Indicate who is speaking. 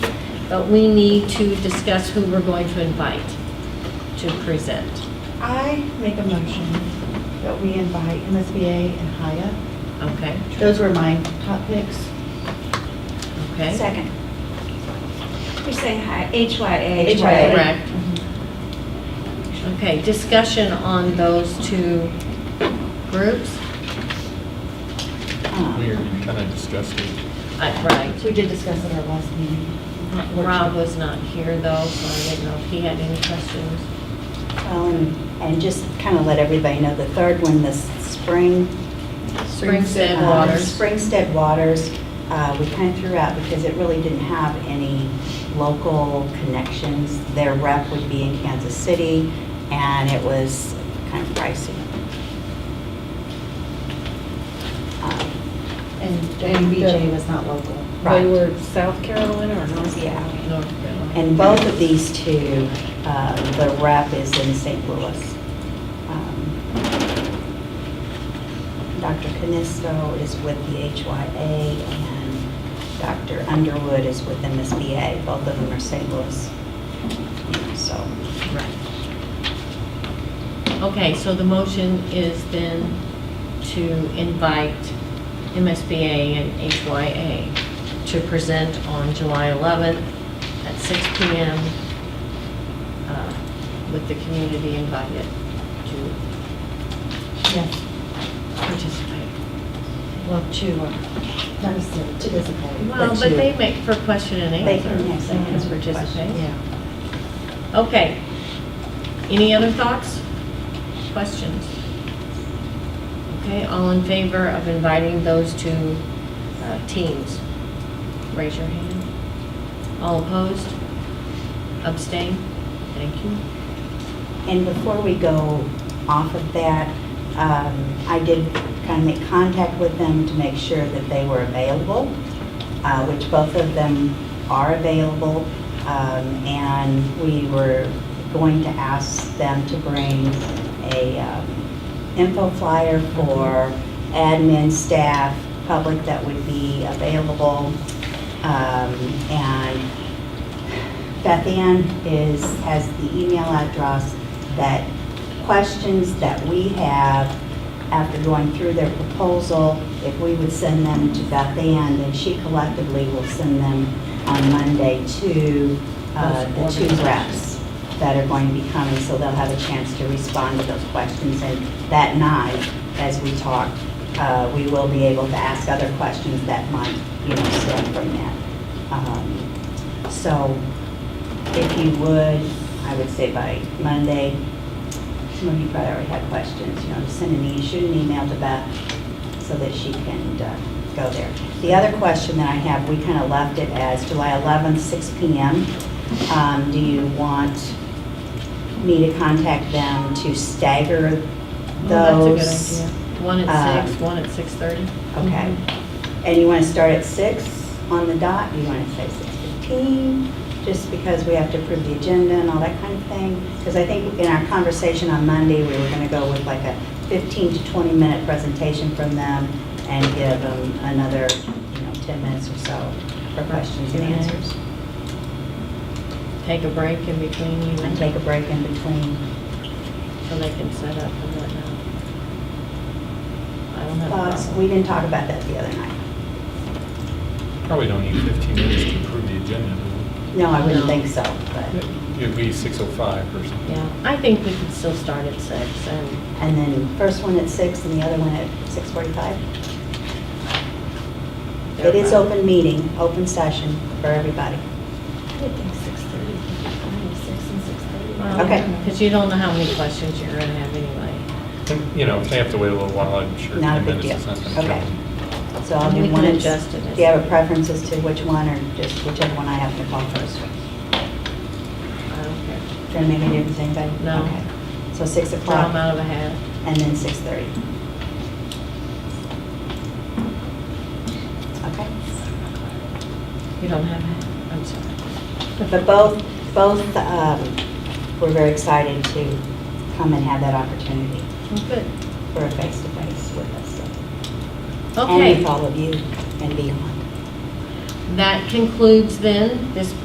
Speaker 1: but we need to discuss who we're going to invite to present.
Speaker 2: I make a motion that we invite MSBA and HIA.
Speaker 1: Okay,
Speaker 2: Those were my top picks.
Speaker 1: okay?
Speaker 3: Second. You're saying hi, HYA.
Speaker 2: HYA.
Speaker 1: Correct. Okay, discussion on those two groups?
Speaker 2: Um,
Speaker 4: Uh,
Speaker 5: Weird, you kind of discussed it.
Speaker 1: Uh, Right.
Speaker 2: So we did discuss at our last meeting.
Speaker 1: Rob was not here though, so I didn't know if he had any questions.
Speaker 4: Um, And just kind of let everybody know, the third one, this spring.
Speaker 1: Springstead
Speaker 4: um,
Speaker 1: Waters.
Speaker 4: Springstead Waters, uh, we kind of threw out because it really didn't have any local connections. Their rep would be in Kansas City, and it was kind of pricey. Um,
Speaker 2: And JBJ was not local.
Speaker 4: Right.
Speaker 6: South Carolina or North
Speaker 4: Yeah.
Speaker 1: North Carolina.
Speaker 4: And both of these two, um, the rep is in St. Louis. Um, Dr. Canisto is with the HYA and Dr. Underwood is with MSBA. Both of them are St. Louis. So,
Speaker 1: Right. Okay, so the motion is then to invite MSBA and HYA to present on July 11th at 6 PM uh, with the community invited to
Speaker 2: Yes,
Speaker 1: participate.
Speaker 2: well, to, uh, not necessarily to disappoint.
Speaker 1: Well, but they make for question and
Speaker 4: They
Speaker 1: answer.
Speaker 4: can, yes, they can.
Speaker 1: It's participate.
Speaker 2: Yeah.
Speaker 1: Okay. Any other thoughts? Questions? Okay, all in favor of inviting those two uh, teams? Raise your hand. All opposed? Abstain? Thank you.
Speaker 4: And before we go off of that, um, I did kind of make contact with them to make sure that they were available, uh, which both of them are available. Um, And we were going to ask them to bring a um, info flyer for admin, staff, public that would be available. Um, And Beth Ann is, has the email address that questions that we have after going through their proposal, if we would send them to Beth Ann, then she collectively will send them on Monday to uh, the two reps that are going to be coming, so they'll have a chance to respond to those questions. And that night, as we talk, uh, we will be able to ask other questions that might, you know, stem from that. Um, so if you would, I would say by Monday, some of you probably already have questions, you know, just send an, e- shoot an email to Beth so that she can uh, go there. The other question that I have, we kind of left it as July 11th, 6 PM. Um, Do you want me to contact them to stagger
Speaker 1: Well, Oh, That's a
Speaker 4: those?
Speaker 1: good idea. One at
Speaker 4: uh,
Speaker 1: six, Mhm. one at 6:30?
Speaker 4: Okay. And you want to start at six on the dot? You want to say six fifteen? Just because we have to approve the agenda and all that kind of thing? Because I think in our conversation on Monday, we were going to go with like a fifteen to twenty minute presentation from them and give them another, you know, ten minutes or so for questions and answers.
Speaker 1: Take a break in between you
Speaker 4: And take a break in between.
Speaker 1: so they can set up and whatnot. I don't have a
Speaker 4: Thoughts?
Speaker 1: problem.
Speaker 4: Uh, We didn't talk about that the other night.
Speaker 5: Probably don't need 15 minutes to approve the agenda. do
Speaker 4: No, I
Speaker 1: No.
Speaker 4: wouldn't think so,
Speaker 5: we?
Speaker 4: but,
Speaker 5: It'd be 6:05 or something.
Speaker 1: Yeah, I think we could still start at six and,
Speaker 4: and then first one at six and the other one at six forty-five? It is open meeting, open session for everybody.
Speaker 3: I would think 6:30, five, six and 6:30.
Speaker 4: Okay.
Speaker 1: because you don't know how many questions you're gonna have anyway.
Speaker 5: And, You know, if they have to wait a little while, I'm sure
Speaker 4: Not a
Speaker 5: 10
Speaker 4: big
Speaker 5: minutes is
Speaker 4: deal.
Speaker 5: not going to kill
Speaker 4: Okay.
Speaker 5: them.
Speaker 4: So I'll
Speaker 1: And we
Speaker 4: do
Speaker 1: can
Speaker 4: one.
Speaker 1: adjust it as-
Speaker 4: Do you have a preference as to which one or just whichever one I have to call first?
Speaker 1: I don't care.
Speaker 4: Does that make any difference to anybody?
Speaker 1: No.
Speaker 4: Okay. So 6
Speaker 1: Draw them
Speaker 4: o'clock
Speaker 1: out of a hat.
Speaker 4: and then 6:30. Okay.
Speaker 1: You don't have a hat, I'm sorry.
Speaker 4: But both, both, um, we're very excited to come and have that opportunity
Speaker 1: Well, good.
Speaker 4: for a face-to-face with us. And with
Speaker 1: Okay,
Speaker 4: all of you and beyond.
Speaker 1: that concludes then this